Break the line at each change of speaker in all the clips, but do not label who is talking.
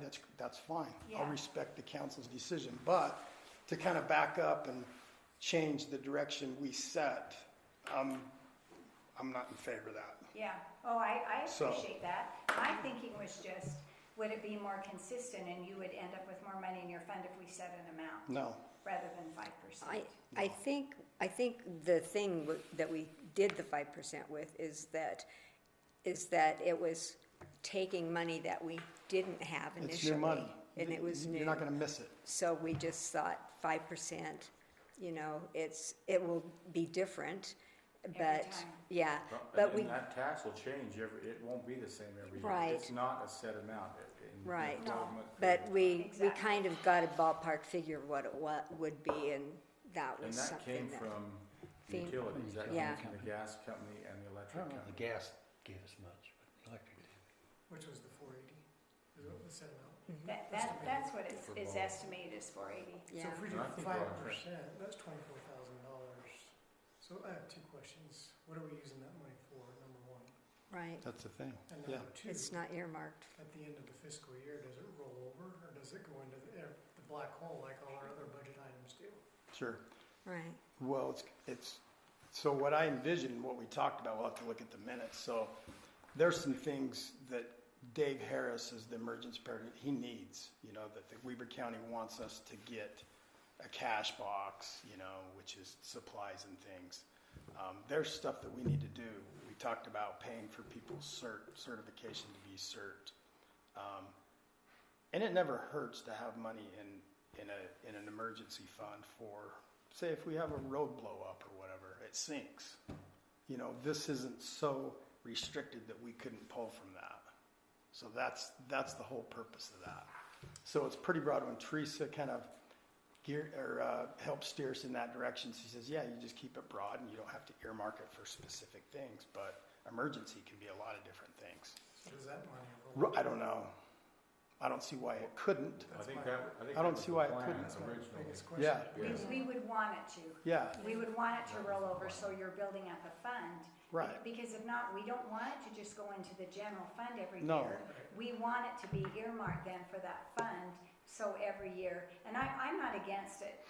that's, that's fine. I'll
Yeah.
respect the council's decision, but to kind of back up and change the direction we set, I'm, I'm not in favor of that.
Yeah, oh, I, I
So-
appreciate that. My thinking was just, would it be more consistent and you would end up with more money in your fund if we set an amount
No,
rather than five percent?
I, I think, I think the thing w- that we did the five percent with is that, is that it was taking money that we didn't have initially.
it's your money.
And it was new.
You're not gonna miss it.
So we just thought five percent, you know, it's, it will be different, but,
time.
yeah,
Well,
but
and-
we,
And that tax will change every, it won't be the same every year.
Right.
It's not a set amount. It- in- in
Right.
No.
government,
but we, we
Exactly.
kind of got a ballpark figure of what it wa- would be, and that
And
was
that came
something that.
from
Fem-
utilities, that
Yeah.
came from the gas company and the electric
Oh,
The
company.
gas gave us much, but the electric didn't.
Which was the four eighty, is what was set amount.
That, that, that's what it's,
For
is
both.
estimated is four eighty.
Yeah,
So if we do
And I think we're
five
on track.
percent, that's twenty-four thousand dollars. So I have two questions. What are we using that money for, number one?
right,
That's the thing,
And
yeah.
number two,
it's not earmarked,
at the end of the fiscal year, does it roll over or does it go into the, eh, the black hole like all our other budget items do?
Sure.
right.
Well, it's, it's, so what I envisioned, what we talked about, we'll have to look at the minutes, so there's some things that Dave Harris is the emergency preparedness, he needs, you know, that, that Weber County wants us to get a cash box, you know, which is supplies and things. Um, there's stuff that we need to do. We talked about paying for people's cert, certification to be cert. Um, and it never hurts to have money in, in a, in an emergency fund for, say, if we have a road blow up or whatever, it sinks. You know, this isn't so restricted that we couldn't pull from that. So that's, that's the whole purpose of that. So it's pretty broad when Teresa kind of gear, or, uh, helped steer us in that direction. She says, yeah, you just keep it broad and you don't have to earmark it for specific things, but emergency can be a lot of different things.
So does that money roll?
Ru- I don't know. I don't see why it couldn't.
I think that, I think
I
that
don't
was
see
the
why it
plan
couldn't.
My
originally.
biggest question.
Yeah.
We,
Yes.
we would want it to.
Yeah,
We would want it to roll over, so you're building up a fund.
Right.
Because if not, we don't want it to just go into the general fund every
No.
year. We want it to be earmarked then for that fund, so every year, and I, I'm not against it.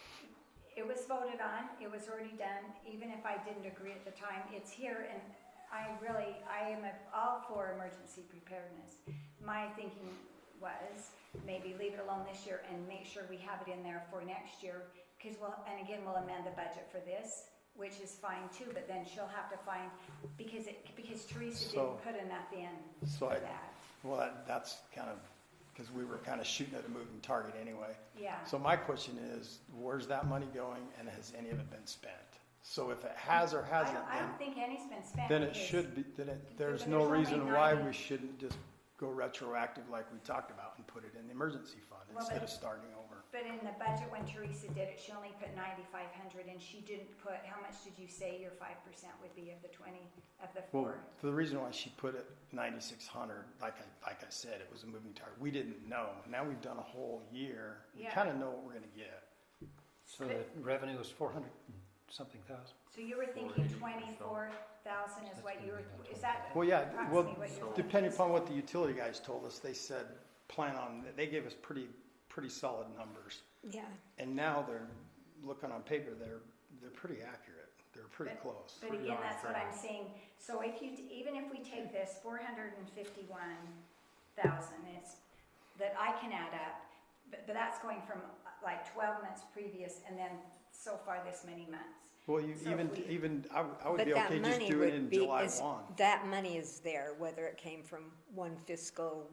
It was voted on, it was already done, even if I didn't agree at the time, it's here, and I really, I am all for emergency preparedness. My thinking was, maybe leave it alone this year and make sure we have it in there for next year, because we'll, and again, we'll amend the budget for this, which is fine too, but then she'll have to find, because it, because Teresa
So-
didn't put enough in
So
for
I-
that,
well, that, that's kind of, because we were kind of shooting at a moving target anyway.
yeah.
So my question is, where's that money going and has any of it been spent? So if it has or
I
hasn't,
don't, I
then,
don't think any's been spent.
then it
because-
should be, then it, there's
Because
no
there's only
reason why
90.
we shouldn't just go retroactive like we talked about and put it in the emergency fund
Well,
instead
but-
of starting over.
But in the budget when Teresa did it, she only put ninety-five hundred and she didn't put, how much did you say your five percent would be of the twenty, of the
Well,
four?
the reason why she put it ninety-six hundred, like I, like I said, it was a moving target. We didn't know. Now we've done a whole year. We
Yeah.
kind of know what we're gonna get.
So the revenue was four hundred and something thousand.
So you were thinking twenty-four thousand is what you were, is that?
Well, yeah, well,
approximately what you're-
depending upon what the utility guys told us, they said, plan on, they gave us pretty, pretty solid numbers.
Yeah,
And now they're, looking on paper, they're, they're pretty accurate, they're pretty close.
But
Pretty
again,
on
that's what
track.
I'm saying, so if you, t- even if we take this four hundred and fifty-one thousand, it's, that I can add up, but, but that's going from uh, like twelve months previous and then so far this many months.
Well, you
So
even,
we-
even, I would, I would
but
be
that
okay just
money
doing it in
would be,
July
is,
one.
that money is there, whether it came from one fiscal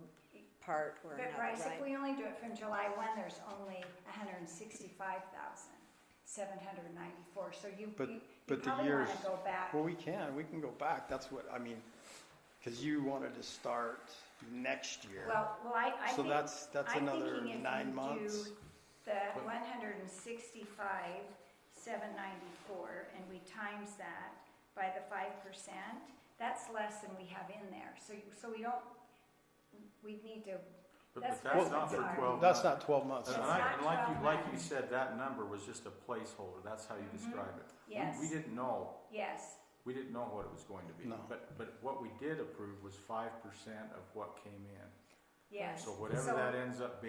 part or
But
another,
Bryce, if
right?
we only do it from July one, there's only hundred and sixty-five thousand, seven hundred and ninety-four, so you,
But-
you- you
but the
probably wanna
years-
go back.
Well, we can, we can go back, that's what, I mean, cause you wanted to start next year.
Well, well, I, I
So
think.
that's- that's
I'm
another
thinking if
nine
you do
months.
The one hundred and sixty-five, seven ninety-four, and we times that by the five percent, that's less than we have in there, so, you- so we don't, we need to,
But
That's
but
what
that's not
it's
for
on.
twelve
That's
months.
not twelve months.
And
That's
I-
not
and like you,
12
like you
months. Mm-hmm.
said, that number was just a placeholder. That's how you describe it. We-
Yes.
We didn't know
yes,
We didn't know what it was going to be.
No.
But, but what we did approve was five percent of what came in.
yes.
So whatever that ends up being.